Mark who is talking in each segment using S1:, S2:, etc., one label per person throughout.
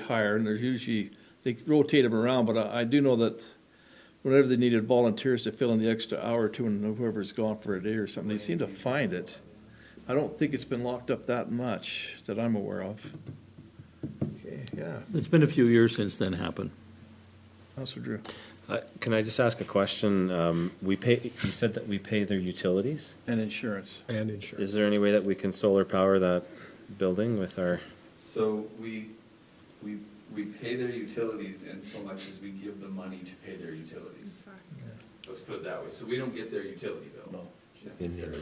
S1: hire, and there's usually, they rotate them around, but I, I do know that whenever they needed volunteers to fill in the extra hour or two, and whoever's gone for a day or something, they seem to find it. I don't think it's been locked up that much that I'm aware of. Okay, yeah,
S2: It's been a few years since then happened.
S1: Counselor Drew.
S3: Uh, Can I just ask a question? Um, We pay, you said that we pay their utilities.
S1: And insurance.
S4: And insurance.
S3: Is there any way that we can solar power that building with our,
S5: So we, we, we pay their utilities in so much as we give them money to pay their utilities. Let's put it that way, so we don't get their utility bill necessarily.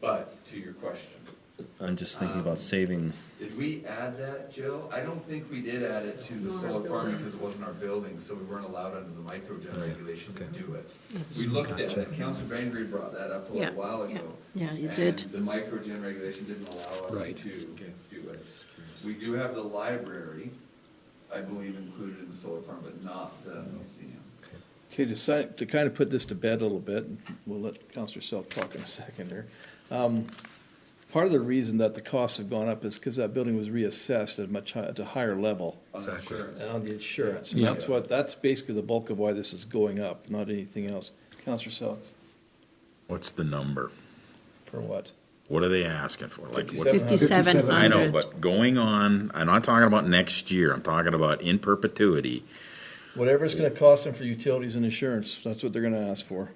S5: But to your question,
S3: I'm just
S2: Um,
S3: thinking about saving.
S5: did we add that, Jill? I don't think we did add it to the solar farm because it wasn't our building, so we weren't allowed under the microgen regulation to do it. We looked at it, Councilor Bangery brought that up a
S6: Yeah,
S5: little while
S6: yeah.
S5: ago.
S6: Yeah, you did.
S5: And the microgen regulation didn't allow us
S2: Right.
S5: to do it. We do have the library, I believe, included in the solar farm, but not the museum.
S1: Okay, to si- to kind of put this to bed a little bit, and we'll let Counselor Selk talk in a second here. Um, Part of the reason that the costs have gone up is because that building was reassessed at much, hi- at a higher level
S5: On insurance,
S1: and on the insurance. And
S2: Yeah.
S1: that's what, that's basically the bulk of why this is going up, not anything else. Counselor Selk,
S7: What's the number?
S1: for what?
S7: What are they asking for? Like, what's,
S1: 57.
S6: Fifty-seven hundred.
S7: I know, but going on, I'm not talking about next year, I'm talking about in perpetuity.
S1: Whatever it's gonna cost them for utilities and insurance, that's what they're gonna ask for.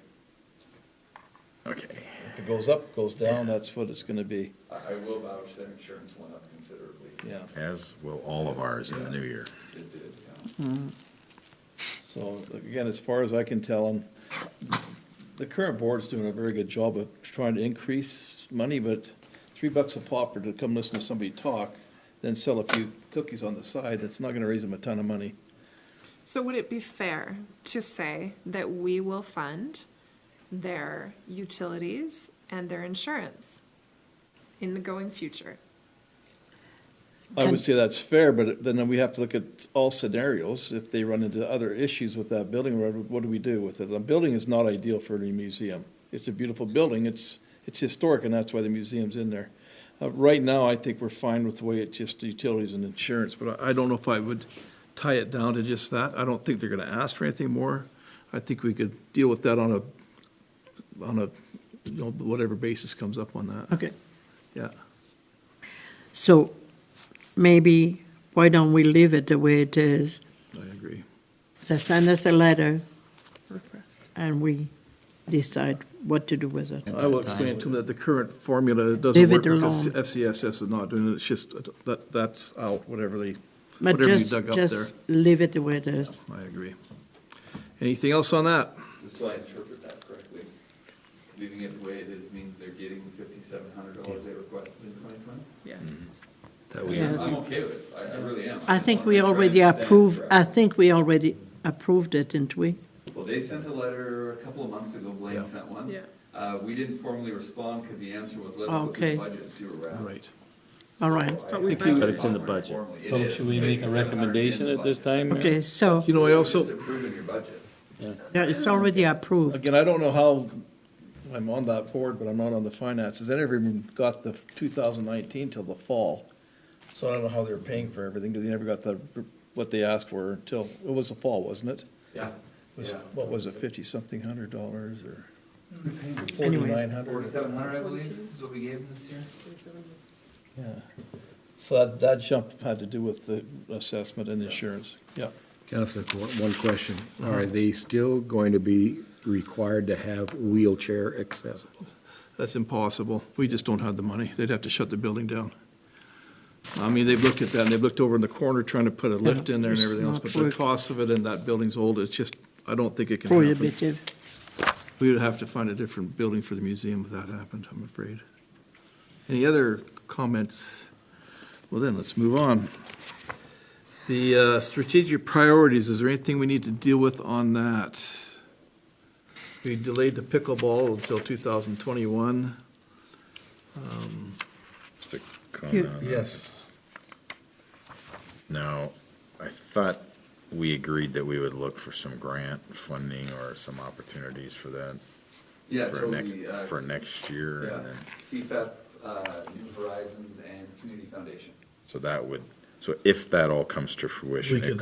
S7: Okay.
S1: If it goes up, goes down, that's what it's gonna be,
S5: I, I will vouch that insurance went up considerably,
S1: yeah.
S7: As will all of ours in the new year.
S5: it did, yeah.
S1: So again, as far as I can tell, and the current board's doing a very good job of trying to increase money, but three bucks a pop for to come listen to somebody talk, then sell a few cookies on the side, that's not gonna raise them a ton of money.
S8: So would it be fair to say that we will fund their utilities and their insurance in the going future?
S1: I
S6: Can-
S1: would say that's fair, but then we have to look at all scenarios. If they run into other issues with that building, what- what do we do with it? The building is not ideal for any museum. It's a beautiful building, it's, it's historic, and that's why the museum's in there. Uh, right now, I think we're fine with the way it just utilities and insurance, but I, I don't know if I would tie it down to just that. I don't think they're gonna ask for anything more. I think we could deal with that on a, on a, you know, whatever basis comes up on that.
S6: Okay,
S1: Yeah,
S6: so maybe, why don't we leave it the way it is?
S1: I agree.
S6: They send us a letter and we decide what to do with it.
S1: I will explain to them that the current formula doesn't
S6: Leave
S1: work
S6: it
S1: because
S6: alone.
S1: FCSS is not doing it, it's just, that, that's out, whatever they,
S6: But
S1: whatever you
S6: just-
S1: dug up there.
S6: Just leave it the way it is.
S1: I agree. Anything else on that?
S5: Just so I interpret that correctly, leaving it the way it is means they're getting fifty-seven hundred dollars they requested in twenty twenty?
S3: That we,
S6: Yes.
S5: I'm okay with it, I, I really am.
S6: I
S5: just
S6: think
S5: wanna
S6: we
S5: make sure I
S6: already
S5: understand
S6: approved, I
S5: correctly.
S6: think we already approved it, didn't we?
S5: Well, they sent a letter a couple of months ago, Blaine sent one.
S7: Mm-hmm.
S8: Yeah.
S5: Uh, we didn't formally respond because the answer was, let's look at
S6: Okay.
S5: the budget and see where we're at.
S1: Right.
S6: All right.
S8: But we
S3: But it's in the budget.
S2: So should we make a recommendation at this time? Mary?
S6: Okay, so,
S1: You know, I
S5: Just
S1: also,
S5: approving your budget.
S6: yeah, it's already approved.
S1: again, I don't know how, I'm on that board, but I'm not on the finances. I never even got the two thousand nineteen till the fall. So I don't know how they were paying for everything, because they never got the, what they asked for until, it was the fall, wasn't it?
S5: Yeah.
S1: It was- What was it, fifty-something hundred dollars or
S6: Anyway.
S1: forty-nine hundred?
S5: Forty-seven hundred, I believe, is what we gave them this year.
S1: Yeah, so that, that jump had to do with the assessment and insurance, yeah.
S4: Counselor, one- one question. Are they still going to be required to have wheelchair accessible?
S1: That's impossible, we just don't have the money, they'd have to shut the building down. I mean, they've looked at that, and they've looked over in the corner trying to put a lift in there and
S6: it's
S1: everything else,
S6: not
S1: but the
S6: work-
S1: cost of it and that building's old, it's just, I don't think it can happen.
S6: Prohibitive.
S1: We would have to find a different building for the museum if that happened, I'm afraid. Any other comments? Well then, let's move on. The uh, strategic priorities, is there anything we need to deal with on that? We delayed the pickleball until 2021.
S7: Just a comment on that.
S1: Yes.
S7: Now, I thought we agreed that we would look for some grant funding or some opportunities for that.
S5: Yeah,
S7: for next-
S5: totally, uh,
S7: For next year,
S5: Yeah,
S7: and then,
S5: CFAP, uh, New Horizons and Community Foundation.
S7: so that would, So if that all comes to fruition, it